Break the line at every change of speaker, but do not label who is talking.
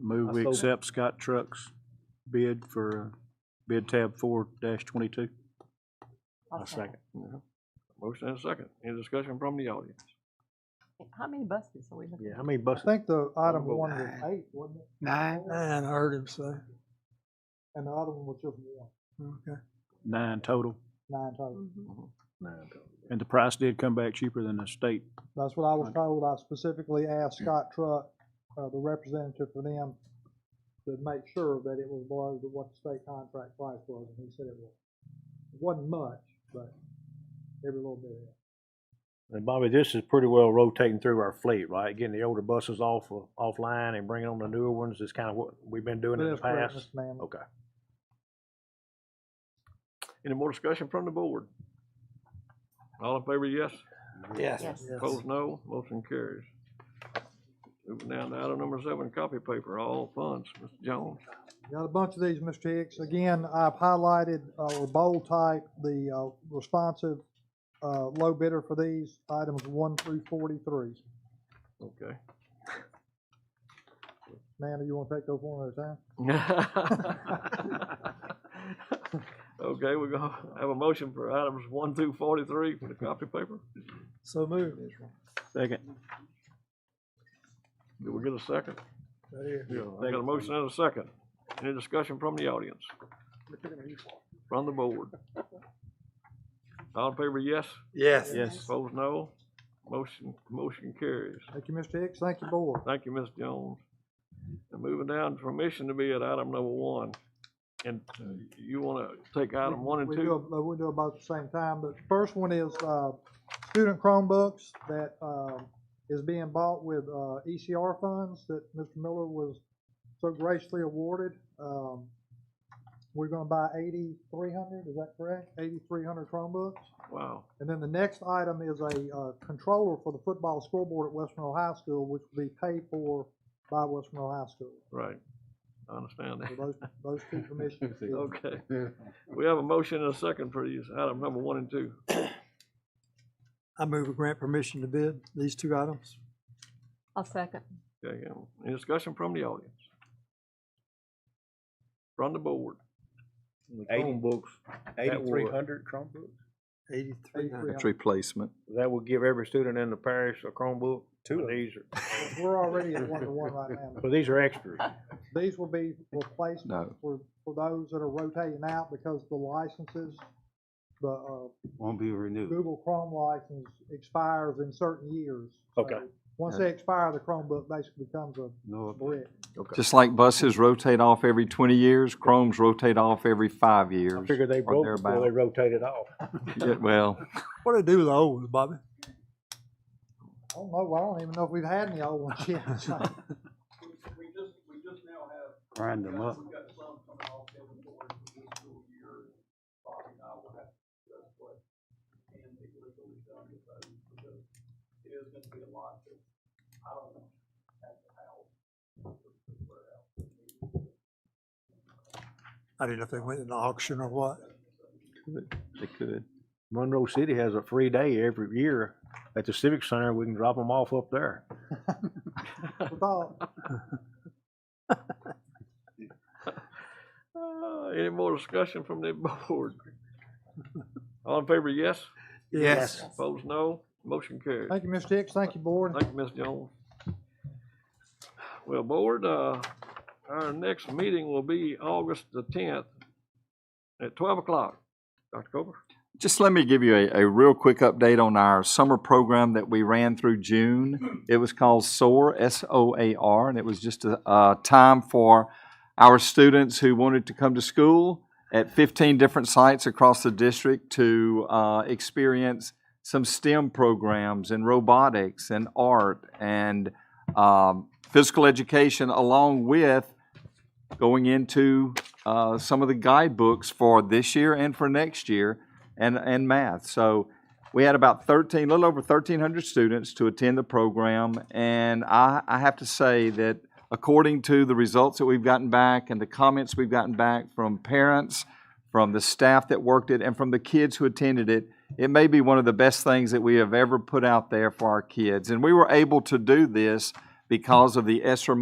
Move
I
we
so-
accept Scott Trucks bid for uh, bid tab four dash twenty-two.
I'll
Yeah. Motion and a second. Any discussion from the audience?
How many buses are we looking?
Yeah, how many buses?
I think the item
Well,
one was eight, wasn't it?
Nine,
Nine, I heard him say. And the other one was just one. Okay.
Nine total,
Nine total.
Mhm.
Nine total.
and the price did come back cheaper than the state.
That's what I was told. I specifically asked Scott Truck, uh, the representative for them, to make sure that it was below the- what the state contract price was, and he said it was. It Wasn't much, but every little bit. helped.
And Bobby, this is pretty well rotating through our fleet, right? Getting the older buses off, of- offline and bringing on the newer ones is kind of what we've been doing in the
That's correct,
past.
Mr. Manley.
Okay.
Any more discussion from the board? All in favor, yes.
yes.
Yes.
Opposed, no. Motion carries. Moving down to item number seven, copy paper, all funds. Mr. Jones,
Got a bunch of these, Mr. Hicks. Again, I've highlighted, uh, with bold type, the, uh, responsive, uh, low bidder for these items one through forty-three.
okay.
Amanda, you wanna take those one at a time?
Okay, we're gonna have a motion for items one through forty-three for the copy paper.
So moved.
Second,
Do we get a second?
Right here.
Yeah, I got a motion and a second. Any discussion from the audience? From the board? All in favor, yes?
Yes.
yes.
Opposed, no? Motion, motion carries.
Thank you, Mr. Hicks. Thank you, board.
Thank you, Ms. Jones. And moving down, permission to be at item number one. And uh, you wanna take item one and
We do,
two?
uh, we do them both at the same time, but the first one is, uh, student Chromebooks that, um, is being bought with, uh, ECR funds that Mr. Miller was so graciously awarded. Um, we're gonna buy eighty-three hundred, is that correct? Eighty-three hundred Chromebooks?
Wow,
And then the next item is a uh, controller for the football scoreboard at West Monroe High School, which will be paid for by West Monroe High School.
right. I understand
So
that.
those, those two commissions. is-
Okay. We have a motion and a second for these, item number one and two.
I move a grant permission to bid these two items.
I'll second.
Okay, um, any discussion from the audience? From the board?
Chromebooks,
Eighty-three hundred Chromebooks?
Eighty-three hundred.
replacement.
that will give every student in the parish a Chromebook. Two of these. are-
We're already at one-to-one right now.
But these are extras.
These will be replacements
No.
for, for those that are rotating out because the licenses, the, uh,
won't be renewed.
Google Chrome license expires in certain years.
Okay.
So Once they expire, the Chromebook basically becomes a
No,
brick.
Just like buses rotate off every twenty years, Chromes rotate off every five years.
I figure they
or
broke before they
thereabout.
rotated off.
Yeah, well,
What do they do with the old ones, Bobby? I don't know. I don't even know if we've had any old ones yet.
grind them up.
I didn't know if they went in auction or what.
they could.
Monroe City has a free day every year at the Civic Center. We can drop them off up there.
Uh, any more discussion from the board? All in favor, yes?
Yes.
Opposed, no? Motion carries.
Thank you, Mr. Hicks. Thank you, board.
Thank you, Ms. Jones. Well, board, uh, our next meeting will be August the tenth at twelve o'clock. Dr. Cooper?
Just let me give you a, a real quick update on our summer program that we ran through June. It was called SOAR, S-O-A-R, and it was just a, a time for our students who wanted to come to school at 15 different sites across the district to uh, experience some STEM programs and robotics and art and um, physical education, along with going into uh, some of the guidebooks for this year and for next year and, and math. So we had about 13, little over 1,300 students to attend the program. And I, I have to say that according to the results that we've gotten back and the comments we've gotten back from parents, from the staff that worked it, and from the kids who attended it, it may be one of the best things that we have ever put out there for our kids. And we were able to do this because of the ESSER